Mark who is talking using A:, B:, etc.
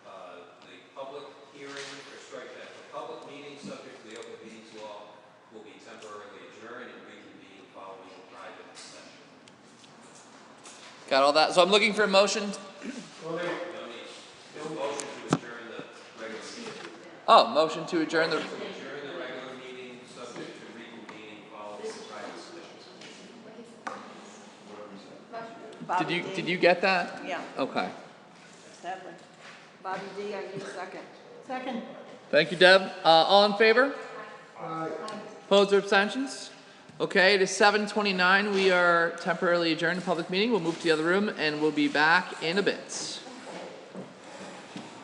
A: uh,
B: Got all that? So I'm looking for a motion.
A: No motion to adjourn the regular meeting.
B: Oh, motion to adjourn the,
A: Adjourn the regular meeting, subject to reconvening following the private session.
B: did you, did you get that?
C: Yeah,
B: Okay.
C: Sadly. Bobby D, I need a second. Second.
B: Thank you, Deb. Uh, all in favor? Opposed or abstentions? Okay, it is seven twenty-nine. We are temporarily adjourned to public meeting. We'll move to the other room and we'll be back in a bit.